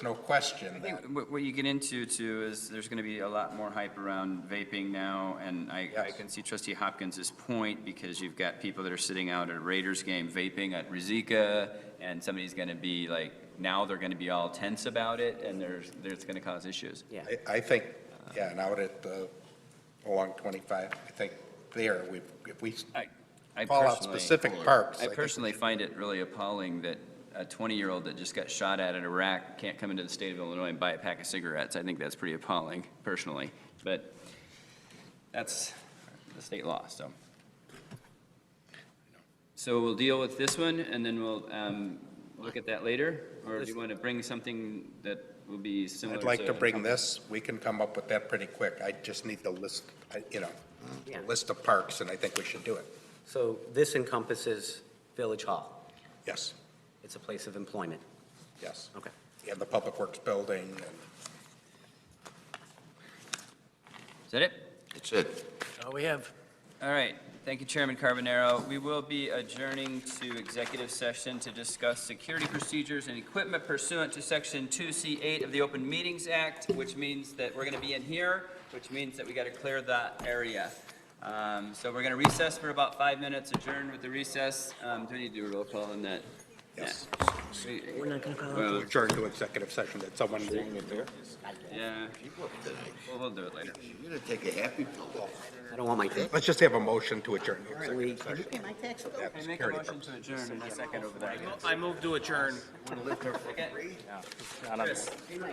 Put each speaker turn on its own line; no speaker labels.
no question.
I
that.
think What what you get into too is there's going to be a lot more hype around vaping now, and I, I
Yes.
can see trustee Hopkins's point because you've got people that are sitting out at a Raiders game vaping at Rizika, and somebody's going to be like, now they're going to be all tense about it, and there's, there's going to cause issues.
Yeah.
I, I think, yeah, and out at, uh, along 25, I think there, we, if we
I
call out
personally-
specific parks.
I
think
personally find it really appalling that a 20-year-old that just got shot at in Iraq can't come into the state of Illinois and buy a pack of cigarettes. I think that's pretty appalling, personally. But that's the state law, so. So we'll deal with this one, and then we'll um, look at that later? Or do you want to bring something that will be similar?
I'd like to bring this, we can come up with that pretty quick. I just need the list, I- you know, the
Yeah.
list of parks, and I think we should do it.
So this encompasses Village Hall.
Yes,
It's a place of employment.
yes.
Okay.
And the Public Works Building, and
Is that it?
That's it.
All we have.
All right, thank you, Chairman Carbonaro. We will be adjourning to executive session to discuss security procedures and equipment pursuant to Section 2C8 of the Open Meetings Act, which means that we're going to be in here, which means that we got to clear that area. Um, So we're going to recess for about five minutes, adjourn with the recess. Um, Do we need to do a roll call on that?
yes.
We're not going to call.
Adjourn to executive session, that someone,
Yeah, Well, we'll do it later.
You're gonna take a happy pill.
I don't want my kids.
let's just have a motion to adjourn to
Can
executive
we- can you
session.
pay my tax bill?
That's
I make a
security
motion to adjourn in a second over there.
I move to adjourn.
Chris?